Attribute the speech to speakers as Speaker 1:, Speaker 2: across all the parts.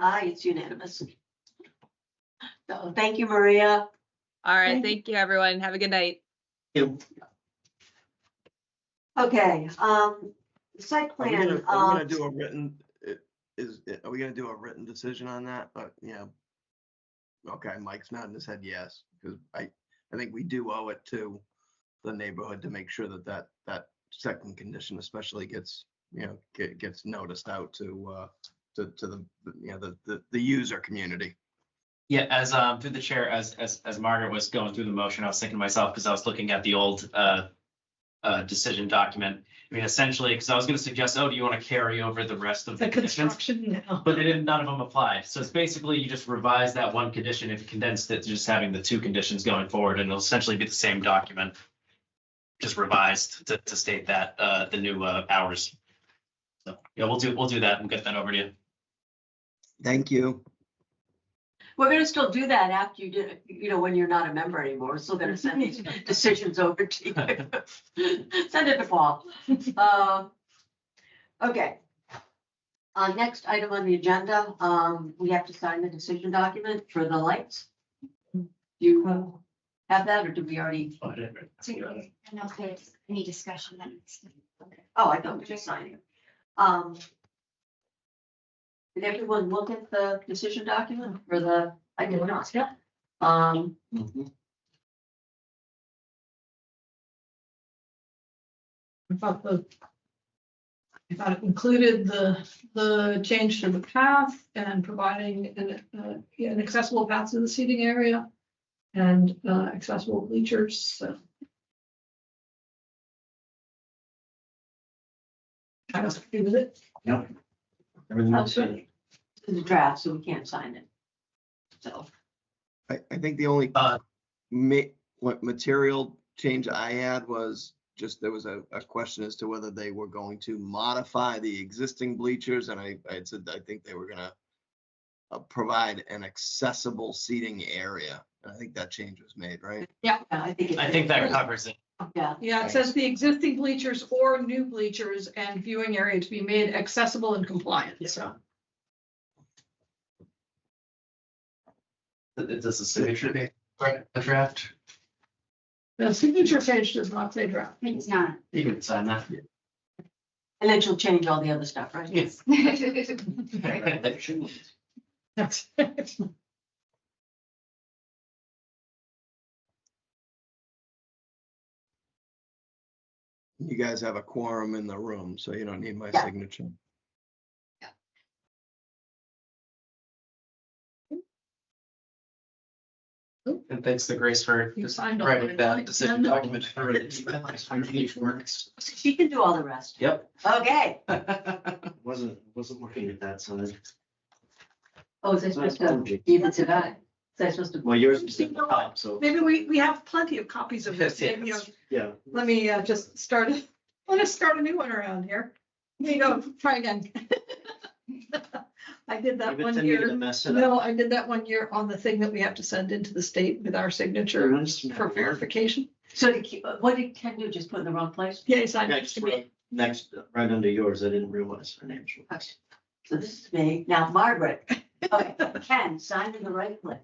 Speaker 1: Aye, it's unanimous. So thank you, Maria.
Speaker 2: All right,
Speaker 1: Thank you.
Speaker 2: thank you, everyone. Have a good night.
Speaker 1: Okay, um, the site
Speaker 3: Are we gonna-
Speaker 1: plan,
Speaker 3: are we
Speaker 1: um,
Speaker 3: gonna do a written, i- is, i- are we gonna do a written decision on that? But, yeah. Okay, Mike's nodding his head yes, because I, I think we do owe it to the neighborhood to make sure that that, that second condition especially gets, you know, ge- gets noticed out to, uh, to, to the, the- you know, the, the, the user community.
Speaker 4: Yeah, as um through the chair, as as as Margaret was going through the motion, I was thinking to myself, because I was looking at the old uh. Uh, decision document. I mean, essentially, because I was gonna suggest, oh, do you want to carry over the rest of the
Speaker 5: The
Speaker 4: conditions?
Speaker 5: construction now.
Speaker 4: But they didn't, none of them applied. So it's basically you just revise that one condition and condensed it to just having the two conditions going forward and it'll essentially be the same document. Just revised to to state that uh the new uh hours. So, yeah, we'll do, we'll do that. We'll get that over to you.
Speaker 3: Thank you.
Speaker 1: we're gonna still do that after you did, you know, when you're not a member anymore. We're still gonna send these decisions over to you. Send it to Paul. Um, okay. Uh, next item on the agenda, um, we have to sign the decision document for the lights. Do you
Speaker 5: Oh,
Speaker 1: have that or did we already?
Speaker 4: Oh, I didn't write-
Speaker 6: So, I don't know if there's any discussion that needs to.
Speaker 1: Oh, I thought we were just signing. it. Um. Did everyone look at the decision document for the, I did not,
Speaker 5: Yeah.
Speaker 1: um.
Speaker 5: I thought the. I thought it included the, the change to the path and providing an, uh, yeah, an accessible path to the seating area. And, uh, accessible bleachers, so. I was happy with it.
Speaker 4: Everything
Speaker 5: else?
Speaker 1: This is a draft, so we can't sign it. So,
Speaker 3: I, I think the only
Speaker 4: Uh,
Speaker 3: ma- what material change I had was just, there was a, a question as to whether they were going to modify the existing bleachers, and I, I had said, I think they were gonna uh, provide an accessible seating area. And I think that change was made, right?
Speaker 1: yeah, I think. it-
Speaker 4: I think that covers it.
Speaker 1: Yeah,
Speaker 5: Yeah, it says the existing bleachers or new bleachers and viewing area to be made accessible and compliant, so.
Speaker 4: Does the signature be correct, the draft?
Speaker 5: The signature page does not say draft.
Speaker 6: It's not.
Speaker 4: You can sign that.
Speaker 1: and then she'll change all the other stuff, right?
Speaker 4: Yes.
Speaker 5: That's.
Speaker 3: You guys have a quorum in the room, so you don't need my
Speaker 1: Yeah.
Speaker 3: signature.
Speaker 4: And thanks to Grace for
Speaker 5: You
Speaker 4: just
Speaker 5: signed all
Speaker 4: writing
Speaker 5: the
Speaker 4: that decision
Speaker 5: agenda.
Speaker 4: document for it. Works.
Speaker 1: She can do all the rest.
Speaker 4: Yep.
Speaker 1: Okay.
Speaker 7: Wasn't, wasn't looking at that side.
Speaker 1: Oh, is I supposed to give it to that? Is I supposed to?
Speaker 7: Well, yours is at the top, so,
Speaker 5: Maybe we, we have plenty of copies of this.
Speaker 4: Yes,
Speaker 5: Maybe, uh,
Speaker 7: yeah.
Speaker 5: Let me uh, just start, let us start a new one around here. There you go, try again. I did that
Speaker 7: Leave it
Speaker 5: one
Speaker 7: to me to
Speaker 5: year,
Speaker 7: Mess it up.
Speaker 5: no, I did that one year on the thing that we have to send into the state with our
Speaker 7: Sure,
Speaker 5: signature
Speaker 7: I just-
Speaker 5: for verification.
Speaker 1: So to keep, uh, what did Ken do? Just put it in the wrong place?
Speaker 5: Yeah, he signed
Speaker 7: Yeah,
Speaker 5: next
Speaker 7: just
Speaker 5: to me.
Speaker 7: right- Next, right under yours, I didn't realize her name.
Speaker 1: Okay. So this is me. Now Margaret. Okay, Ken, sign in the right place.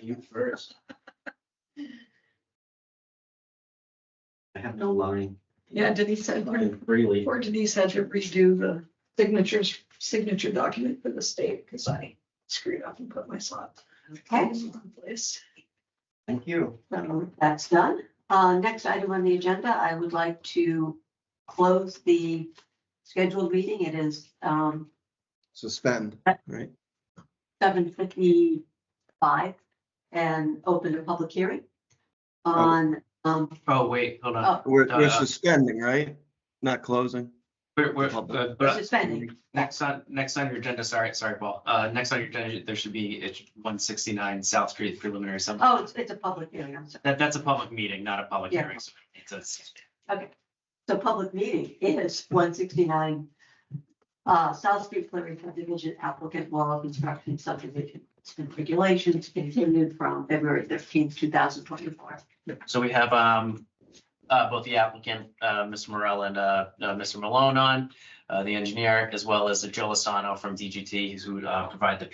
Speaker 7: You first. I have no line.
Speaker 5: Yeah, Denise said,
Speaker 7: Line Freely.
Speaker 5: poor Denise had to redo the signatures, signature document for the state because I screwed up and put my slot.
Speaker 1: Okay.
Speaker 5: Place.
Speaker 7: Thank you.
Speaker 1: So Um, that's done. Uh, next item on the agenda, I would like to close the scheduled meeting. It is, um,
Speaker 3: Suspend,
Speaker 1: Uh,
Speaker 3: right?
Speaker 1: seven fifty-five and open a public hearing on, um,
Speaker 4: Oh, wait, hold on.
Speaker 1: oh,
Speaker 3: We're,
Speaker 4: Uh,
Speaker 3: we're suspending, right? Not closing.
Speaker 4: We're, we're,
Speaker 3: Public.
Speaker 4: but- but
Speaker 1: suspending.
Speaker 4: next on, next on your agenda, sorry, sorry, Paul. Uh, next on your agenda, there should be, it's one sixty-nine South Street preliminary summary.
Speaker 1: Oh, it's, it's a public hearing, I'm sorry.
Speaker 4: That, that's a public meeting, not a public
Speaker 1: Yeah.
Speaker 4: hearing. so It's a,
Speaker 1: So public meeting is one sixty-nine uh, South Street Preliminary Subdivision applicant law construction subdivision and regulations continued from February thirteenth, two thousand twenty-four.
Speaker 4: So we have um, uh, both the applicant, uh, Mr. Morel and uh, uh, Mr. Malone on, uh, the engineer, as well as Joe Lozano from DGT, who uh, provide the